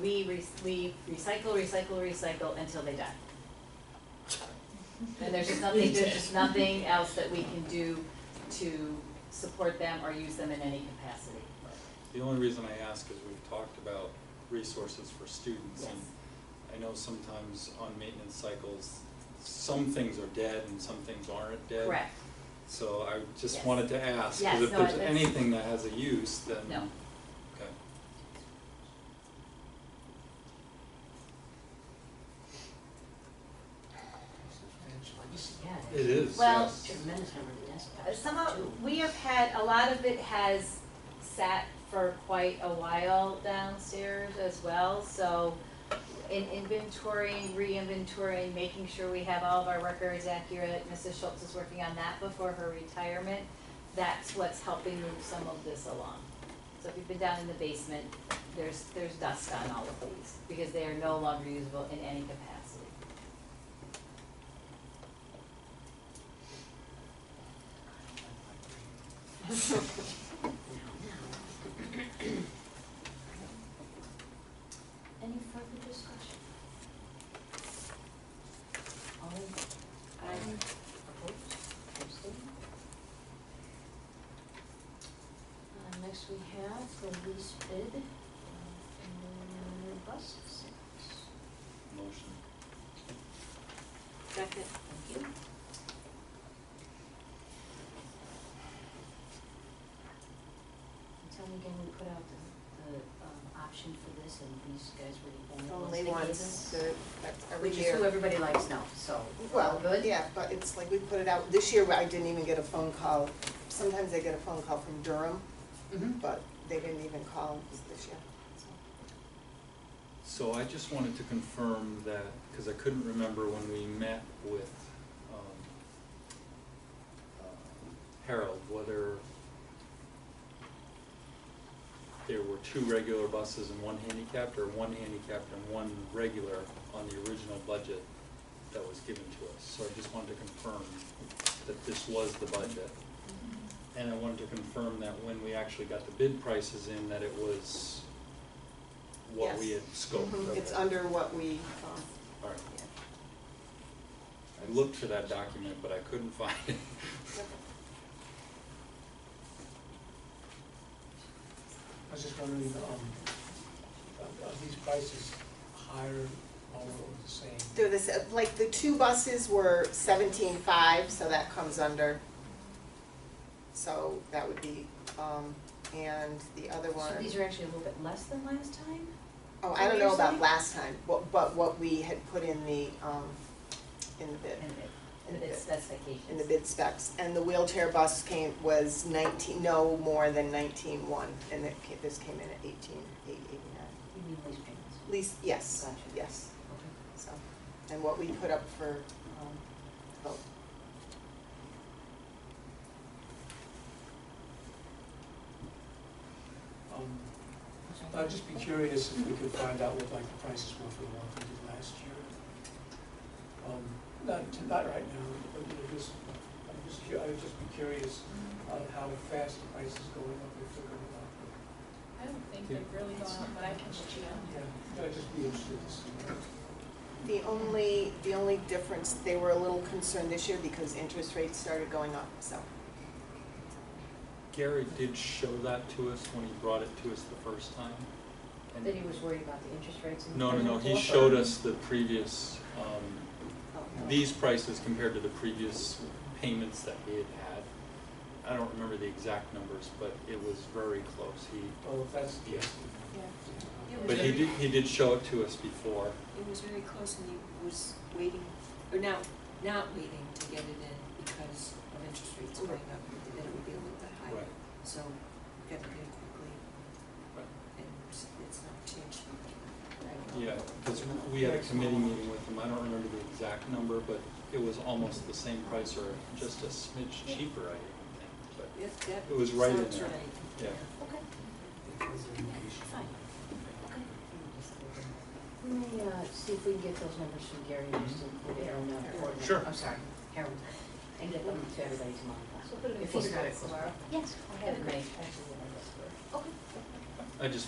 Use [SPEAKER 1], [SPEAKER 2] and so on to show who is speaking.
[SPEAKER 1] we re- we recycle, recycle, recycle until they die. And there's just nothing, there's just nothing else that we can do to support them or use them in any capacity.
[SPEAKER 2] The only reason I ask is we've talked about resources for students.
[SPEAKER 1] Yes.
[SPEAKER 2] and I know sometimes on maintenance cycles, some things are dead and some things aren't dead.
[SPEAKER 1] Correct,
[SPEAKER 2] So I just
[SPEAKER 1] Yes.
[SPEAKER 2] wanted to ask,
[SPEAKER 1] Yes,
[SPEAKER 2] because if
[SPEAKER 1] no,
[SPEAKER 2] there's
[SPEAKER 1] that's-
[SPEAKER 2] anything that has a use, then.
[SPEAKER 1] No.
[SPEAKER 2] Okay.
[SPEAKER 3] Substantial.
[SPEAKER 2] It is,
[SPEAKER 1] Well,
[SPEAKER 2] yes.
[SPEAKER 3] Tremendous number of
[SPEAKER 1] Uh,
[SPEAKER 3] dispatches
[SPEAKER 1] Some of,
[SPEAKER 3] too.
[SPEAKER 1] we have had, a lot of it has sat for quite a while downstairs as well, so in inventorying, re-inventorying, making sure we have all of our records accurate, Mrs. Schultz is working on that before her retirement. That's what's helping move some of this along. So if you've been down in the basement, there's, there's dust on all of these, because they are no longer usable in any capacity.
[SPEAKER 3] Any further discussion? All in favor?
[SPEAKER 1] I-
[SPEAKER 3] Opposed? Abstained? Uh, next we have the lease bid, uh, and then uh, bus sales.
[SPEAKER 2] Motion.
[SPEAKER 1] Second.
[SPEAKER 3] Thank you. And Tell me again, we put out the, the, um, option for this and these guys were the only
[SPEAKER 4] Only
[SPEAKER 3] ones
[SPEAKER 4] once,
[SPEAKER 3] that gave us.
[SPEAKER 4] the, that's every
[SPEAKER 3] Which is who
[SPEAKER 4] year.
[SPEAKER 3] everybody likes now, so.
[SPEAKER 4] Well,
[SPEAKER 3] good.
[SPEAKER 4] yeah, but it's like we put it out, this year I didn't even get a phone call, sometimes I get a phone call from Durham,
[SPEAKER 1] Mm-hmm.
[SPEAKER 3] Mhm.
[SPEAKER 4] but they didn't even call this year.
[SPEAKER 2] So I just wanted to confirm that, because I couldn't remember when we met with um, uh, Harold, whether there were two regular buses and one handicapped, or one handicapped and one regular on the original budget that was given to us. So I just wanted to confirm that this was the budget. And I wanted to confirm that when we actually got the bid prices in, that it was what we
[SPEAKER 4] Yes.
[SPEAKER 2] had scoped.
[SPEAKER 4] Mhm, It's
[SPEAKER 2] Okay.
[SPEAKER 4] under what we, um,
[SPEAKER 2] All right.
[SPEAKER 4] yeah.
[SPEAKER 2] I looked for that document, but I couldn't find it.
[SPEAKER 5] I was just wondering, um, are- are these prices higher, lower, or the same?
[SPEAKER 4] They're the, sa- like, the two buses were seventeen-five, so that comes under. So that would be, um, and the other one.
[SPEAKER 3] So these are actually a little bit less than last time?
[SPEAKER 4] Oh,
[SPEAKER 3] What
[SPEAKER 4] I don't
[SPEAKER 3] were you
[SPEAKER 4] know about
[SPEAKER 3] saying?
[SPEAKER 4] last time, but, but what we had put in the, um, in the bid,
[SPEAKER 1] And it-
[SPEAKER 4] In
[SPEAKER 1] and
[SPEAKER 4] the
[SPEAKER 1] it's
[SPEAKER 4] bid.
[SPEAKER 1] specifications.
[SPEAKER 4] in the bid specs. And the wheelchair bus came, was nineteen, no more than nineteen-one, and it ca- this came in at eighteen, eight eighty-nine.
[SPEAKER 3] You mean lease payments?
[SPEAKER 4] Least, yes,
[SPEAKER 3] Gotcha.
[SPEAKER 4] yes,
[SPEAKER 3] Okay.
[SPEAKER 4] so, and what we put up for, um, vote.
[SPEAKER 5] Um, I'd just be curious if we could find out what like the prices were for the ones we did last year. Um, Not, to- not right now, but you know, just, I'm just, cu- I'd just be curious on how fast the price is going up, if they're going up.
[SPEAKER 6] I don't think they've really gone up, but I can look it up.
[SPEAKER 5] Yeah, I'd just be interested to see.
[SPEAKER 4] The only, the only difference, they were a little concerned this year because interest rates started going up, so.
[SPEAKER 2] Gary did show that to us when he brought it to us the first time. and-
[SPEAKER 3] That he was worried about the interest rates and.
[SPEAKER 2] No, no, no, he showed us the previous, um,
[SPEAKER 4] oh,
[SPEAKER 2] these prices compared to the previous payments that he had had. I don't remember the exact numbers, but it was very close. He,
[SPEAKER 5] Well, if that's the
[SPEAKER 2] Yeah.
[SPEAKER 5] case.
[SPEAKER 7] Yeah.
[SPEAKER 5] then-
[SPEAKER 2] but he did, he did show it to us before.
[SPEAKER 7] It was very close and he was waiting, or now, not waiting to get it in because of interest rates going up, that it would be a little bit higher. So we got it in quickly
[SPEAKER 2] Right.
[SPEAKER 7] and it's it's not changed much.
[SPEAKER 2] Yeah, because we had a committee meeting with him, I don't remember the exact number, but it was almost the same price or just a smidge cheaper, I even think,
[SPEAKER 7] Yes, that
[SPEAKER 2] It was right in
[SPEAKER 7] sounds
[SPEAKER 2] there.
[SPEAKER 7] right.
[SPEAKER 2] Yeah.
[SPEAKER 3] Okay, fine, okay.
[SPEAKER 1] Mm,
[SPEAKER 3] Let me, uh, see if we can get those numbers from Gary, and just include it on the board.
[SPEAKER 2] Sure.
[SPEAKER 3] I'm sorry, Harold, and get them to everybody tomorrow.
[SPEAKER 1] So put it in
[SPEAKER 3] If he's
[SPEAKER 1] folder
[SPEAKER 3] got it,
[SPEAKER 1] tomorrow.
[SPEAKER 3] Yes, I have it.
[SPEAKER 1] Everybody.
[SPEAKER 3] Okay.
[SPEAKER 2] but I just